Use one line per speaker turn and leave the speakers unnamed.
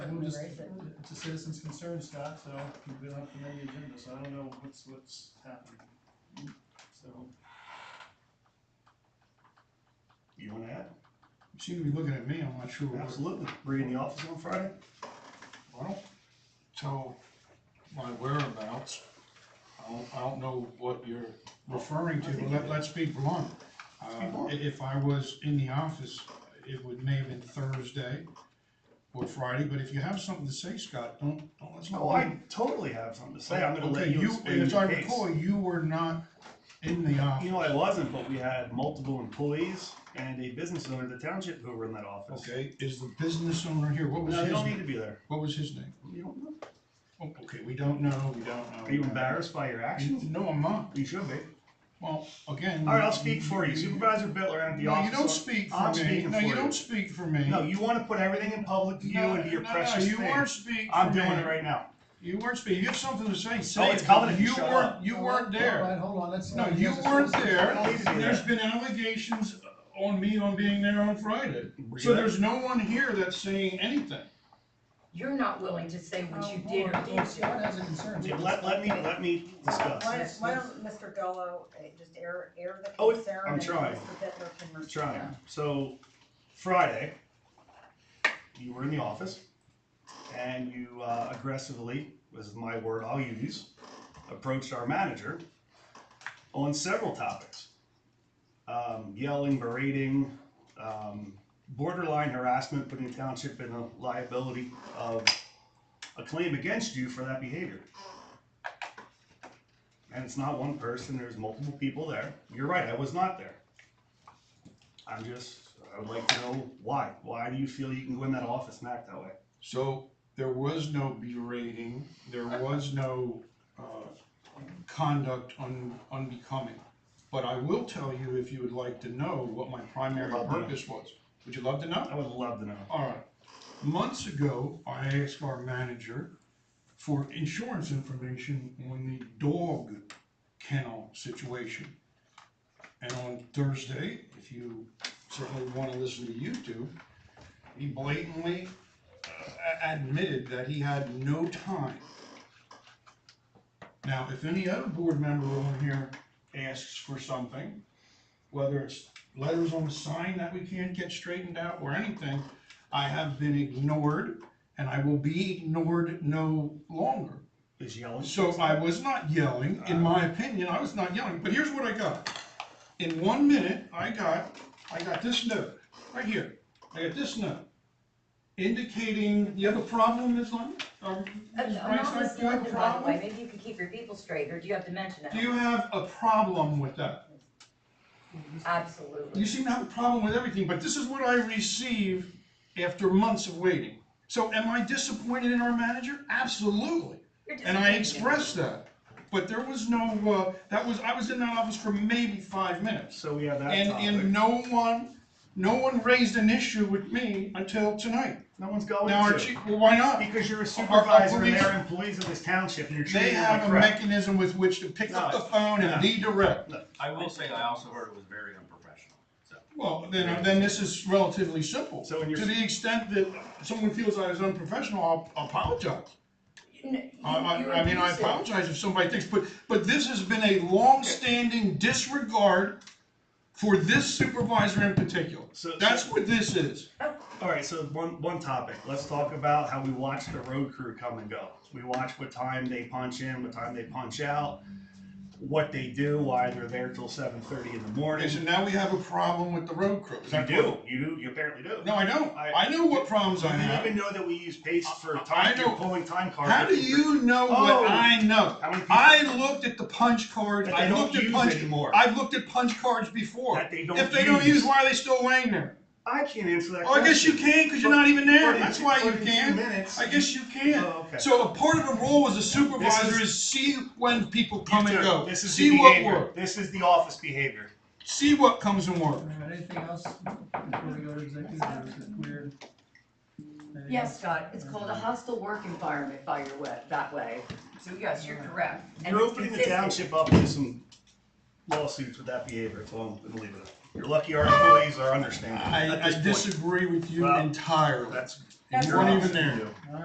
it's a citizen's concern, Scott, so we don't have to amend the agenda, so I don't know what's, what's happening. So,
You wanna add?
She can be looking at me, I'm not sure. what-
Absolutely. Were you in the office on Friday?
I don't tell my whereabouts. I don't, I don't know what you're referring to, but let, let's be blunt.
be
Uh,
blunt.
i- if I was in the office, it would may have been Thursday or Friday, but if you have something to say, Scott, don't, don't let's.
Oh, I totally have something to say. I'm gonna let
Okay,
you explain
As I
your case.
recall, you were not in the office.
You know, I wasn't, but we had multiple employees and a business owner of the township who were in that office.
Okay, is the business owner here? What was
No,
his,
you don't e- need
name?
to be there.
what was his name?
You don't know.
Oh, Okay, we don't know, we don't know.
Are you embarrassed by your actions?
No, I'm not.
You should be.
Well, again.
All right, I'll speak for you. Supervisor Bitler at the
No,
office.
you don't speak for
I'm
me.
speaking
No,
for
you
you.
don't speak for me.
No, you wanna put everything in public view
No,
into your
no,
precious
No, you weren't
thing.
speaking for me.
I'm doing it right now.
You weren't speaking. You have something to say, say it.
it's coming
but
if you
You
shut
weren't,
up.
you weren't
All right,
there.
hold on, let's.
No, you weren't there.
I don't need to be
There's
there.
been allegations on me on being there on Friday.
Were you
So
there?
there's no one here that's saying anything.
You're not willing to say what Oh, you did
Oh,
or
Well,
didn't.
Scott has a concern.
Yeah, Let, let me, let me
Why
discuss.
don't, why don't Mr. Gallo uh, just air, air the
Oh,
concern?
I'm
and
trying.
Mr. Bittler can re-
Trying. So Friday, you were in the office and you uh, aggressively, this is my word I'll use, approached our manager on several topics. Um, yelling, berating, um, borderline harassment, putting the township in the liability of a claim against you for that behavior. And it's not one person, there's multiple people there. You're right, I was not there. I'm just, I would like to know why. Why do you feel you can go in that office and act that way?
So there was no berating, there was no uh, conduct un- unbecoming. But I will tell you, if you would like to know, what my primary
Love to know.
purpose was. Would you love to know?
I would love to know.
All right. Months ago, I asked our manager for insurance information on the dog kennel situation. And on Thursday, if you certainly want to listen to YouTube, he blatantly uh, a- admitted that he had no time. Now, if any other board member on here asks for something, whether it's letters on the sign that we can't get straightened out or anything, I have been ignored and I will be ignored no longer.
Is yelling.
So I was not yelling, in my opinion, I was not yelling, but here's what I got. In one minute, I got, I got this note, right here, I got this note. Indicating, you have a problem, Ms. Lund? Um,
Uh,
Ms.
I'm not
Weinstein, do you
listening
have a
to you, by the way,
problem?
maybe you could keep your people straight, or do you have to mention
Do
it?
you have a problem with that? You
Absolutely.
seem to have a problem with everything, but this is what I receive after months of waiting. So am I disappointed in our manager? Absolutely.
You're
And I
disappointed.
expressed that. But there was no, uh, that was, I was in that office for maybe five minutes.
So we have that
And, and
topic.
no one, no one raised an issue with me until tonight.
No one's going
Now, our
to.
chief, well, why not?
Because Oh, you're a
our- our
supervisor and
police-
they're employees of this township and you're
They
treating them like
have a
crap.
mechanism with which to pick up
No.
the phone and
No.
redirect.
I will say, I also heard it was very unprofessional, so.
Well, then, uh, then this is relatively simple.
So when you're-
To the extent that someone feels I was unprofessional, I'll- I'll apologize.
N-
I,
you- you
I, I mean, I
abuse it.
apologize if somebody thinks, but, but this has been a long-standing disregard for this supervisor in particular.
So-
That's what this is.
All right, so one, one topic. Let's talk about how we watch the road crew come and go. We watch what time they punch in, what time they punch out, what they do, why they're there till seven thirty in the
Okay, so
morning.
now we have a problem with the road crew. Is
You
that
do,
correct?
you do, you apparently do.
No, I don't.
I-
I know what problems I
You didn't even
have.
know that we use paste for
I- I
time, you're
know.
pulling time cards.
How do you know
Oh.
what I know?
How many people-
I looked at the punch cards.
That they
I
don't
looked at
use
punch.
anymore.
I've looked at punch cards before.
That they don't
If they don't
use.
use, why are they still laying there?
I can't answer that
Oh, I guess you
question.
can, cause you're not even there,
But-
that's why you
but in two
can,
minutes-
I guess you can.
Oh, okay.
So a part of the role as a supervisor
This
is see when people come and
You
go,
do. This is the
see what
behavior.
works,
This is the office behavior.
see what comes and works.
All right, Anything else before we go to executive, or is it clear? Anything
Yes, Scott, it's called a hostile work environment by your way, that way. So yes, you're correct. And
You're
it's
opening the
consistent.
township up to some lawsuits with that behavior, so I'm gonna leave it. at- You're lucky our employees are understanding at
I, I
this point.
disagree with you
Well,
entirely.
That's.
You
your
weren't
option
even
to
there.
do.